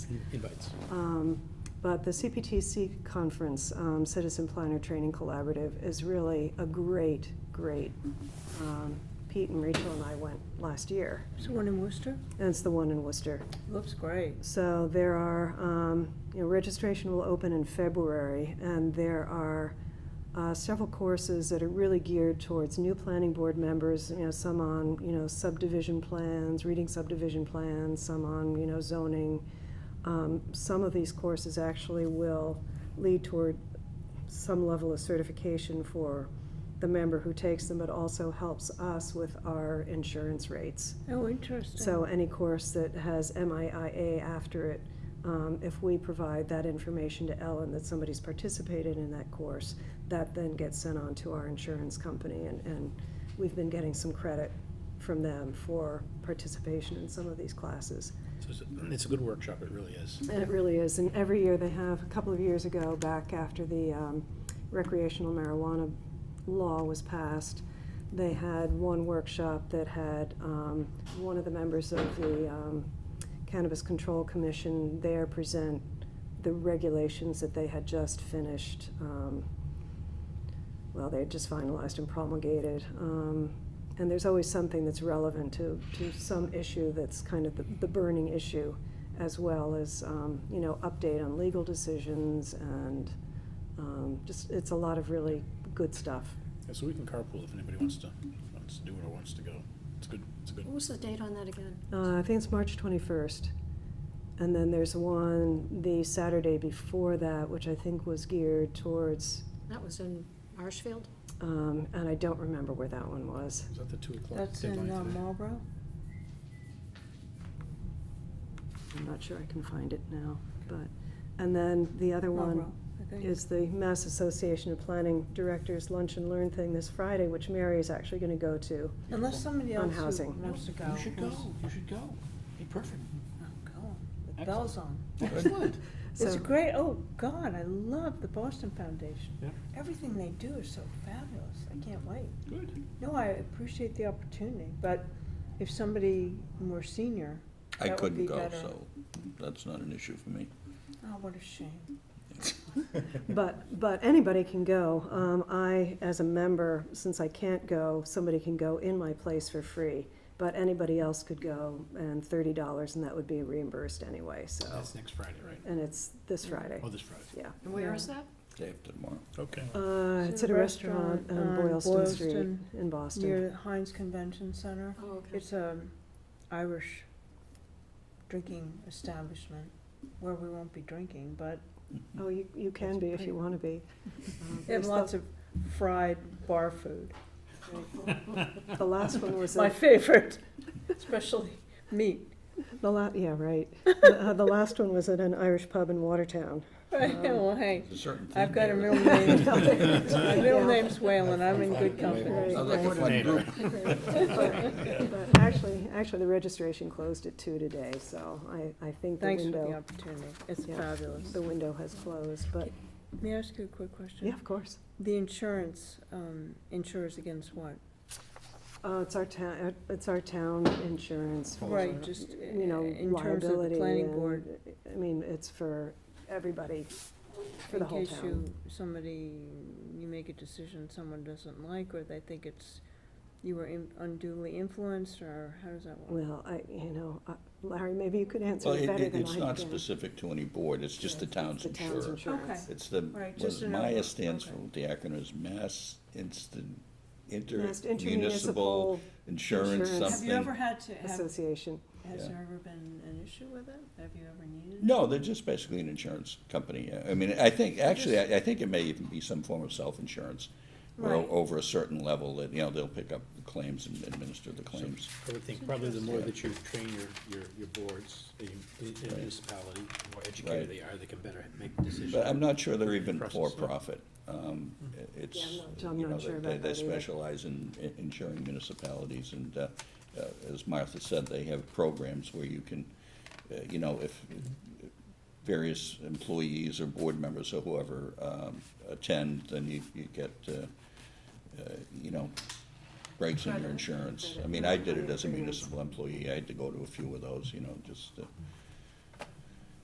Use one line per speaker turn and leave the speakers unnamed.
invites.
Um, But the CPTC conference, um, Citizen Planner Training Collaborative, is really a great, great, um, Pete and Rachel and I went last year,
There's one in Worcester?
and it's the one in Worcester.
Looks great.
So there are, um, you know, registration will open in February, and there are uh, several courses that are really geared towards new planning board members, you know, some on, you know, subdivision plans, reading subdivision plans, some on, you know, zoning. Um, Some of these courses actually will lead toward some level of certification for the member who takes them, but also helps us with our insurance rates.
Oh, interesting.
So uh, any course that has MIIA after it, um, if we provide that information to Ellen that somebody's participated in that course, that then gets sent on to our insurance company, and, and we've been getting some credit from them for participation in some of these classes.
So it's, it's a good workshop, it really is.
And it really is, and every year they have, a couple of years ago, back after the um, recreational marijuana law was passed, they had one workshop that had um, one of the members of the um, Cannabis Control Commission there present the regulations that they had just finished, um, well, they had just finalized and promulgated. Um, And there's always something that's relevant to, to some issue that's kind of the, the burning issue, as well as, um, you know, update on legal decisions and um, just, it's a lot of really good stuff.
Yeah, So we can carpool if anybody wants to, wants to do it or wants to go. It's good, it's a good,
What was the date on that again?
Uh, I think it's March 21st. And then there's one the Saturday before that, which I think was geared towards,
That was in Marshfield?
um, and I don't remember where that one was.
is that the two o'clock
That's in uh,
deadline?
Marlboro?
I'm not sure I can find it now, but, and then the other one
Marlboro, I think.
is the Mass Association of Planning Directors Lunch and Learn thing this Friday, which Mary is actually gonna go to.
Unless somebody
on
else who
housing.
wants to go.
You should go,
wants-
you should go. Hey, perfect.
I'm going. The
Excellent.
bell's on.
Excellent.
It's
So-
great, oh, God, I love the Boston Foundation.
Yeah.
Everything they do is so fabulous, I can't wait.
Good.
No, I appreciate the opportunity, but if somebody more senior,
I
That would be
couldn't go,
better.
so that's not an issue for me.
oh, what a shame.
But, but anybody can go. Um, I, as a member, since I can't go, somebody can go in my place for free. But anybody else could go and thirty dollars and that would be reimbursed anyway, so.
That's next Friday, right?
And it's this Friday,
Oh, this Friday.
yeah.
And where is
Yeah.
that?
Day after tomorrow.
Okay.
Uh,
It's
it's
at
at a
a
restaurant
restaurant
on
on
Boylston Street
Boylston,
in Boston.
Near the Heinz Convention Center.
Oh, okay.
It's an Irish drinking establishment where we won't be drinking, but
Oh, you, you can be if you wanna be. Um,
Mm-hmm. they have
there's the-
lots of fried bar food.
The last one was
My
a
favorite, especially meat.
The la, yeah, right. Uh, The last one was at an Irish pub in Watertown.
Well, hey,
There's a certain
I've
thing
got a
there
middle
that-
name, my middle name's Whalen, I'm in good company.
Right.
Sounds like a fun
Coordinator.
group.
But Actually, actually, the registration closed at two today, so I, I think the
Thanks for the
window,
opportunity, it's
Yeah.
fabulous.
the window has closed, but,
May I ask you a quick question?
yeah, of course.
The insurance, um, insures against what?
Uh, it's our town, it's our town insurance. for,
Right, just,
You know,
uh, in terms of the
liability
planning
and-
board.
I mean, it's for everybody, for the whole
In case
town.
you, somebody, you make a decision someone doesn't like, or they think it's, you were in- unduly influenced, or how does that work?
Well, I, you know, I- Larry, maybe you could answer
Well,
it
it-
better
it-
than I
it's
can.
not specific to any board, it's just the town's
The town's
insurer.
insurance.
Okay.
It's the,
Right,
what
just
is
an over-
MIA stands for,
okay.
the acronym is Mass Instant,
Mass
Intermunicipal Insurance
Insurance.
something.
Have
had to,
Association.
Yeah.
ever been an issue with it? Have you ever needed?
No, they're just basically an insurance company. I mean, I think, actually, I, I think it may even be some form of self-insurance. Where
Right.
over a certain level, that, you know, they'll pick up the claims and administer the claims.
I would think probably the more that you train your, your, your boards, the the municipality, the more educated
Right.
they are, they can better make decisions.
But I'm not sure they're even
Process, yeah.
for-profit. Um, It's,
Yeah, I'm not- I'm
you know,
not sure
they- they,
about that
they
either.
specialize in in insuring municipalities, and uh, uh, as Martha said, they have programs where you can, uh, you know, if various employees or board members or whoever um, attend, then you, you get, uh, uh, you know, breaks in your insurance. I mean, I did it as a municipal employee, I had to go to a few of those, you know, just to